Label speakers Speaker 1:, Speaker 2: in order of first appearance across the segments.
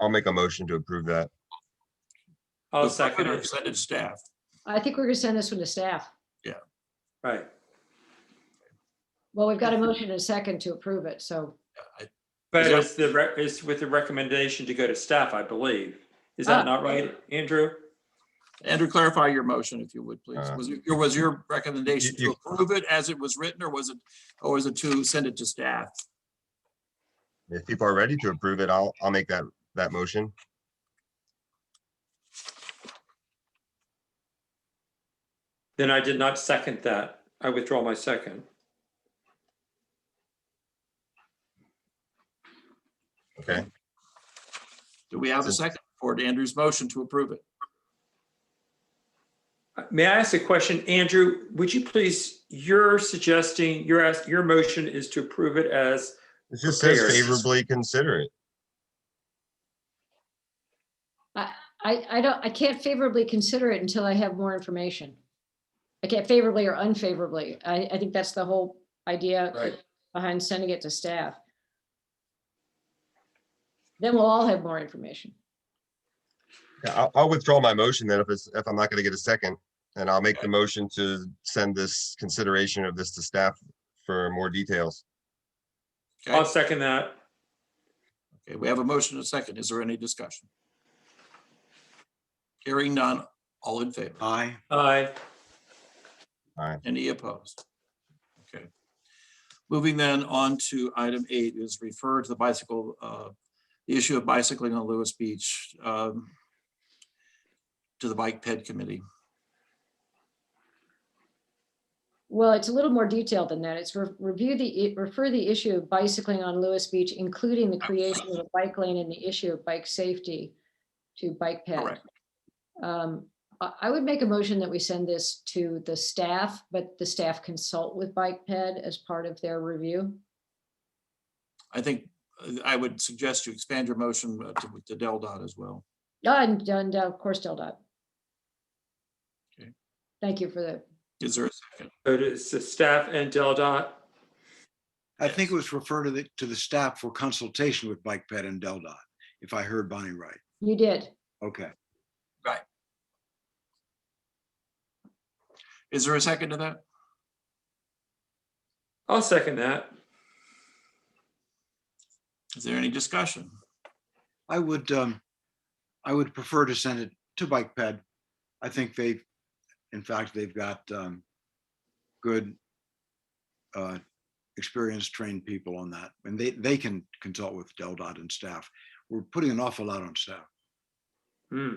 Speaker 1: I'll make a motion to approve that.
Speaker 2: I'll second
Speaker 3: Or
Speaker 2: it,
Speaker 3: Send it staff.
Speaker 4: I think we're gonna send this one to staff.
Speaker 2: right.
Speaker 4: Well, we've got a motion and a second to approve it, so,
Speaker 2: But
Speaker 3: Is that-
Speaker 2: it's the, rec- it's with the recommendation to go to staff, I believe. Is
Speaker 4: Ah.
Speaker 2: that not right, Andrew?
Speaker 3: Andrew, clarify your motion if you would, please.
Speaker 1: Uh,
Speaker 3: Was your, was your recommendation
Speaker 1: You-
Speaker 3: to approve it as it was written or was it, or was it to send it to staff?
Speaker 1: If people are ready to approve it, I'll, I'll make that, that motion.
Speaker 2: Then I did not second that. I withdraw my second.
Speaker 1: Okay,
Speaker 3: Do we have a second for Andrew's motion to approve it?
Speaker 2: Uh, May I ask a question, Andrew? Would you please, you're suggesting, your ask, your motion is to approve it as,
Speaker 1: it just says
Speaker 2: Prepared.
Speaker 1: favorably consider it.
Speaker 4: I, I don't, I can't favorably consider it until I have more information. I can't favorably or unfavorably. I, I think that's the whole idea
Speaker 3: Right.
Speaker 4: behind sending it to staff. Then we'll all have more information.
Speaker 1: Yeah, I'll, I'll withdraw my motion then if it's, if I'm not gonna get a second. And I'll make the motion to send this consideration of this to staff for more details.
Speaker 2: I'll
Speaker 3: Okay,
Speaker 2: second that.
Speaker 3: okay, we have a motion and a second. Is there any discussion? Hearing none, all in favor?
Speaker 5: Aye.
Speaker 2: Aye.
Speaker 3: Any opposed? Okay. Moving then on to item eight is refer to the bicycle, uh, the issue of bicycling on Lewis Beach um, to the Bike Ped Committee.
Speaker 4: Well, it's a little more detailed than that. It's re- review the, i- refer the issue of bicycling on Lewis Beach, including the creation of a bike lane and the issue of bike safety to Bike Ped.
Speaker 3: Correct.
Speaker 4: Um, I, I would make a motion that we send this to the staff, but the staff consult with Bike Ped as part of their review.
Speaker 3: I think uh, I would suggest you expand your motion uh, to to Del Dot as well.
Speaker 4: Done, done, done, of course, Del Dot.
Speaker 3: Okay.
Speaker 4: Thank you for the,
Speaker 3: Is there a second?
Speaker 2: So it's the staff and Del Dot.
Speaker 5: I think it was referred to the, to the staff for consultation with Bike Ped and Del Dot, if I heard Bonnie right.
Speaker 4: you did.
Speaker 5: Okay.
Speaker 3: Is there a second to that?
Speaker 2: I'll second that.
Speaker 3: Is there any discussion?
Speaker 5: I would, um, I would prefer to send it to Bike Ped. I think they, in fact, they've got, um, good, uh, experienced, trained people on that, and they, they can consult with Del Dot and staff. We're putting an awful lot on staff.
Speaker 2: Hmm.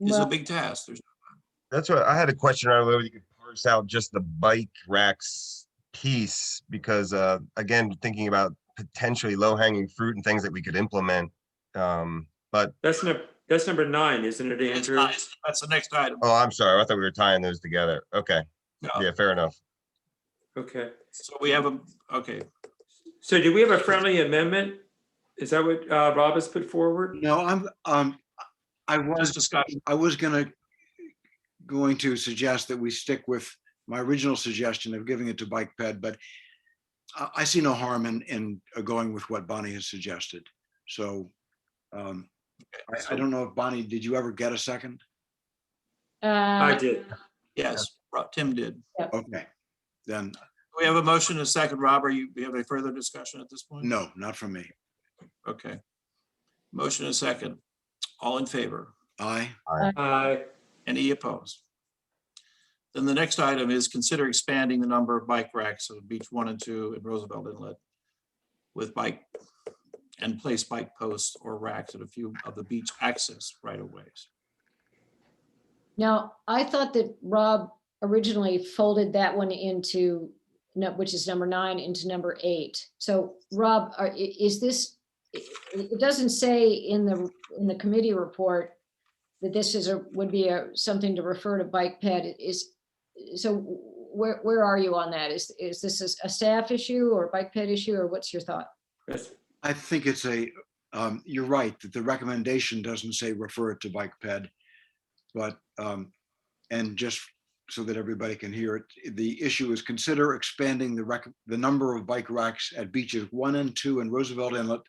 Speaker 3: It's a
Speaker 4: Well,
Speaker 3: big task. There's,
Speaker 1: That's what, I had a question, I don't know if you could parse out just the bike racks piece, because, uh, again, thinking about potentially low hanging fruit and things that we could implement. Um, but,
Speaker 2: That's number, that's number nine, isn't it,
Speaker 3: it's
Speaker 2: Andrew?
Speaker 3: nice. that's the next item.
Speaker 1: oh, I'm sorry, I thought we were tying those together. Okay,
Speaker 3: No.
Speaker 1: yeah, fair enough.
Speaker 2: Okay.
Speaker 3: So we have a, okay,
Speaker 2: So do we have a friendly amendment? Is that what uh, Rob has put forward?
Speaker 5: No, I'm, um, I was
Speaker 3: just discussion.
Speaker 5: I was gonna, going to suggest that we stick with my original suggestion of giving it to Bike Ped, but I, I see no harm in, in uh, going with what Bonnie has suggested. So um, I, I don't know if Bonnie, did you ever get a second?
Speaker 2: I
Speaker 4: uh,
Speaker 2: did.
Speaker 3: Yes, Ro- Tim did.
Speaker 5: Okay, then,
Speaker 3: We have a motion and a second. Rob, are you, we have any further discussion at this point?
Speaker 5: no, not from me.
Speaker 3: Okay. Motion and a second. All in favor?
Speaker 5: Aye,
Speaker 2: Aye.
Speaker 3: Any opposed? Then the next item is consider expanding the number of bike racks of Beach One and Two and Roosevelt Inlet with bike and place bike posts or racks at a few of the beach access right of ways.
Speaker 4: Now, I thought that Rob originally folded that one into, no, which is number nine, into number eight. So Rob, are- i- is this, it it doesn't say in the, in the committee report that this is a, would be a, something to refer to Bike Ped is, so where, where are you on that? Is, is this a- a staff issue or Bike Ped issue or what's your thought?
Speaker 2: That's-
Speaker 5: I think it's a, um, you're right, that the recommendation doesn't say refer it to Bike Ped. But, um, and just so that everybody can hear it, the issue is consider expanding the rec, the number of bike racks at beaches one and two in Roosevelt Inlet